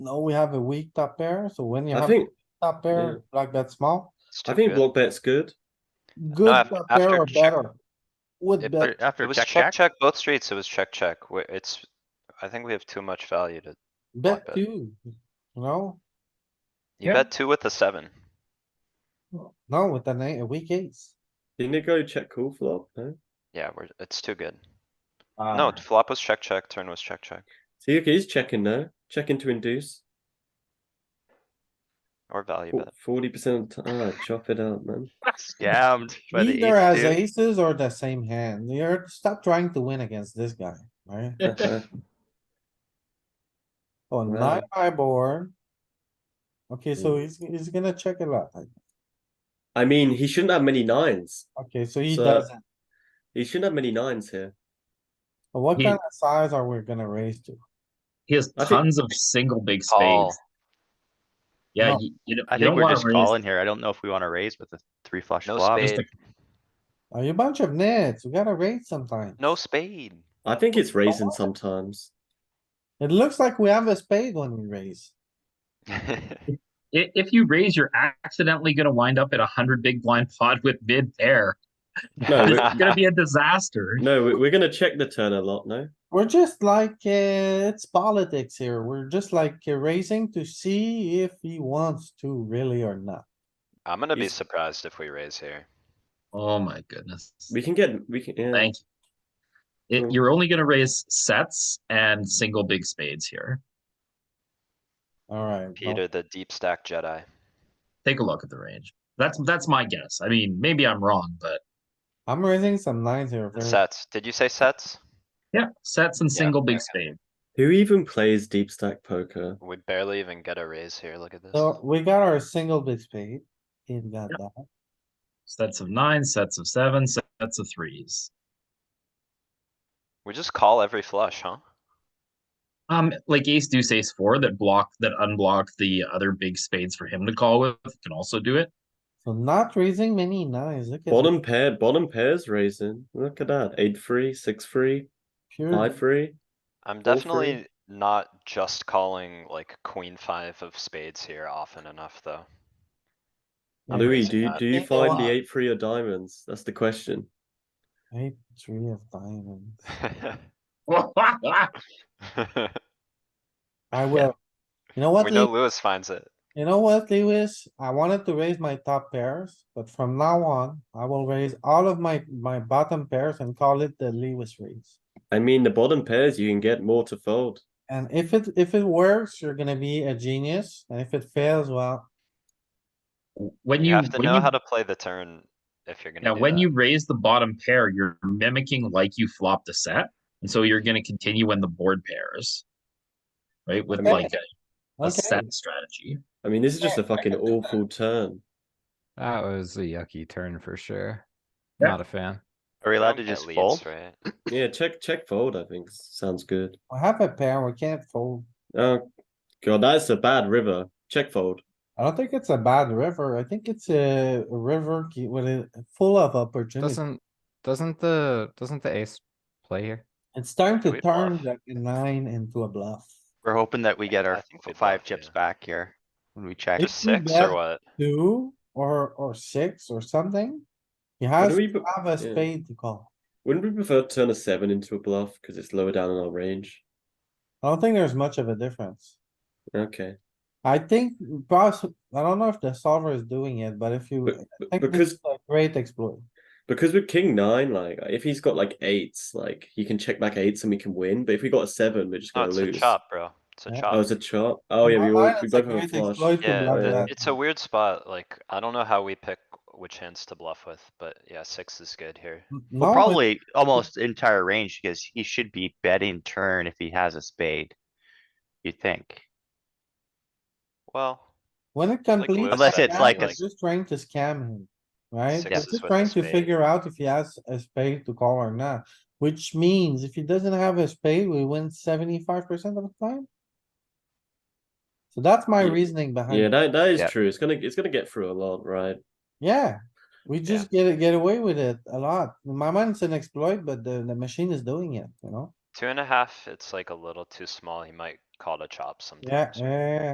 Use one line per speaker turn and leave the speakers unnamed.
No, we have a weak top pair, so when you
I
have
think,
top
yeah.
pair, like bet small,
It's
I
too
think
good.
block bet's good.
good
af-
top pair
after
or
check.
better. Would
If-
bet,
It
After
was
check, check,
check, both streets. It was check, check. We- It's, I think we have too much value to,
bet
bet.
two, you know,
you bet two with a seven.
no, with an eight, a weak ace.
Didn't it go check call flop? No.
Yeah, we're, it's too good.
Uh,
No, flop was check, check, turn was check, check,
See, okay, he's checking now. Checking to induce.
or value bet.
Forty percent. Ah, chop it up, man.
scammed by the
Either as
ace
aces or the same hand, you're, stop trying to win against this guy, right? Oh,
Right.
nine high board. Okay, so
Mm.
he's, he's gonna check a lot, I-
I mean, he shouldn't have many nines.
okay, so he
So-
doesn't,
He shouldn't have many nines here.
But what
He-
kind of size are we gonna raise to?
He has
I think-
tons of single big
Call.
spades. Yeah,
No.
you, you don't-
two. I
you don't
think we're
wanna
just
raise-
calling here. I don't know if we wanna raise with a three flush
No
flop.
spade,
Are you a bunch of nits? We gotta raise sometime.
no spade.
I think it's raising sometimes.
It looks like we have a spade when we raise.
i- If you raise, you're accidentally gonna wind up at a hundred big blind pot with mid pair.
No,
It's
we-
gonna be a disaster.
No, we- we're gonna check the turn a lot. No,
We're just like, uh, it's politics here. We're just like uh, raising to see if he wants to really or not.
I'm gonna be
Is-
surprised if we raise here.
Oh my goodness.
we can get we can. Yeah.
Thank you. It,
Mm.
you're only gonna raise sets and single big spades here.
Alright. well,
Peter, the deep stack Jedi.
Take a look at the range. That's, that's my guess. I mean, maybe I'm wrong, but
I'm raising some nines here. very-
Sets. Did you say sets?
yeah, sets and
Yeah,
single big
okay.
spade.
Who even plays deep stack poker?
We barely even get a raise here. Look at this.
So we got our single big spade. He got that.
Sets of nine, sets of seven, sets of threes.
We just call every flush, huh?
Um, like ace deuce ace four that block that unblock the other big spades for him to call with can also do it.
So not raising many nines. Look at.
Bottom pair, bottom pairs raising. Look at that. Eight three, six three,
pure-
five three.
I'm
Go for it.
definitely not just calling like queen five of spades here often enough, though. I'm
Louis,
raising
do you
that.
do you
Take a
find
lot.
the eight three or diamonds? That's the question.
Eight, three of diamonds. I will. You know what,
We know
Lew-
Lewis finds it.
you know what, Lewis? I wanted to raise my top pairs, but from now on, I will raise all of my, my bottom pairs and call it the Lewis raise.
I mean, the bottom pairs you can get more to fold.
And if it, if it works, you're gonna be a genius, and if it fails, well,
When
You
you,
have to
when
know
you
how to play the turn if you're gonna
now
do
when
that.
you raise the bottom pair, you're mimicking like you flopped a set, and so you're going to continue when the board pairs, right? With
Okay.
like a, a
okay,
set strategy.
I mean, this is just a
Yeah, I
fucking
can do
awful turn.
That was a yucky turn for sure.
Yeah.
Not a fan.
Are we
You don't
allowed to
get
just
leads,
fold?
right?
Yeah, check check fold. I think sounds good.
we have a pair, we can't fold.
Oh god, that's a bad river. Check fold.
I don't think it's a bad river, I think it's a river ki- with a, full of opportunity.
Doesn't doesn't the doesn't the ace play here?
It's time to
we
turn
bluff?
that nine into a bluff.
We're hoping that we get
I
our
think we
five
bluff,
chips
yeah.
back here when we check.
If
Just
we
six
bet-
or what?
Two or, or six or something. He
Wouldn't
has
we,
to
pre-
have a
yeah.
spade to call.
wouldn't we prefer to turn a seven into a bluff because it's lower down in our range?
I don't think there's much of a difference.
Okay.
I think, boss, I don't know if the solver is doing it, but if you,
But,
I
but-
think this
because
is a great exploit.
because with king nine, like if he's got like eights, like he can check back eights and we can win. But if we got a seven, we're just
No,
Oh,
gonna
it's a
lose.
chop, bro. It's a
Yeah.
Oh,
chop.
it's a chop. Oh
In
yeah,
my
we all
mind,
we
it's a
both have a
great exploit
flush.
to
Yeah,
bluff
yeah.
that.
It's a weird spot, like, I don't know how we pick which hands to bluff with, but yeah, six is good here.
No,
Well,
but
probably almost entire range because he should be betting turn if he has a spade. You think?
Well,
When it
like Lewis
completes.
Unless
said,
it's
scam,
like
we're
a-
Just trying to scam him, right?
Six
We're
is with
Just
the
trying to
spade.
figure out if he has a spade to call or not, which means if he doesn't have a spade, we win seventy-five percent of the time. So that's my
Hmm.
Yeah.
reasoning behind
Yeah,
it.
that that is
Yeah.
true. It's gonna it's gonna get through a lot, right?
Yeah, we just get, get away with it a lot. In my mind, it's an exploit, but the, the machine is doing it, you know?
two and a half, it's like a little too small. He might
call to chop sometimes.
Yeah, yeah, yeah, yeah.